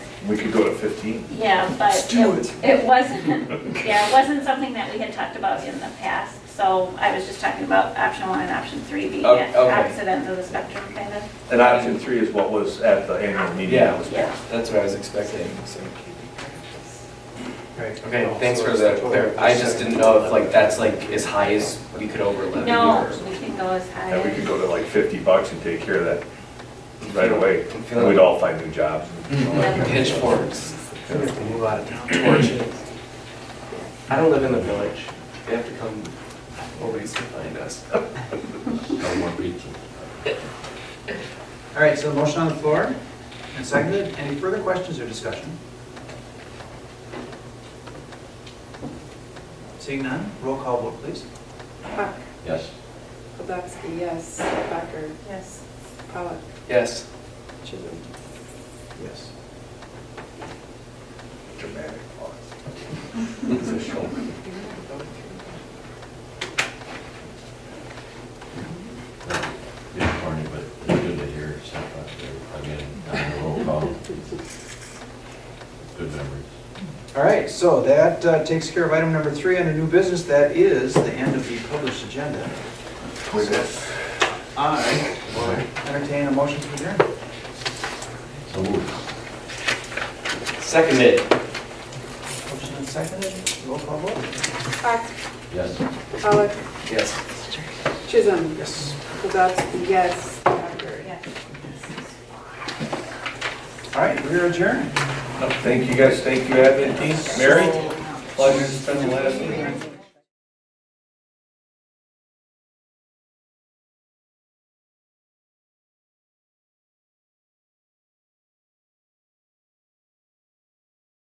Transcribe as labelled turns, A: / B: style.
A: We could go to 15.
B: Yeah, but
C: Let's do
B: it- it wasn't, yeah, it wasn't something that we had talked about in the past. So I was just talking about option one and option three being
C: Oh,
B: at
C: okay.
B: opposite ends of the spectrum, kind of.
A: And option three is what was at the annual meeting.
C: Yeah.
B: Yeah.
C: That's what I was expecting, so.
D: Right.
C: Okay, thanks for the, clar- I just didn't know if like, that's like as high as we could over levy
B: No,
C: or.
B: we can go as high
A: And we could
B: as,
A: go to like 50 bucks and take care of that right away.
C: I'm feeling-
A: We'd all find new jobs.
B: Mm-hmm.
C: Mm, Pitchforks.
D: Move out of town.
C: Torches. I don't live in the village. They have to come always to find us.
E: No more beaches.
D: All right, so motion on the floor and seconded. Any further questions or discussion? Seeing none, roll call vote, please.
F: Huck,
E: Yes.
F: Kowalski, yes. Thacker,
B: yes,
F: Pollock,
C: Yes.
F: Chisholm.
D: Yes.
A: Dramatic pause.
C: It's a show.
E: Big corny, but it's good to hear stuff out there. uh, I mean, on the roll call. Good memories.
D: All right, so that uh, takes care of item number three under new business. That is the end of the published agenda.
A: Wait a minute.
D: All right, we'll entertain a motion to adjourn.
E: So moved.
C: Seconded.
D: Motion and seconded, roll call vote.
F: Huck,
E: Yes.
F: Pollock,
C: Yes.
F: Chisholm.
D: Yes.
F: Kowalski, yes. Thacker,
B: yes.
D: All right, we're adjourned.
A: Thank you guys, thank you, Abby and Mary. Pleasure to spend the last meeting.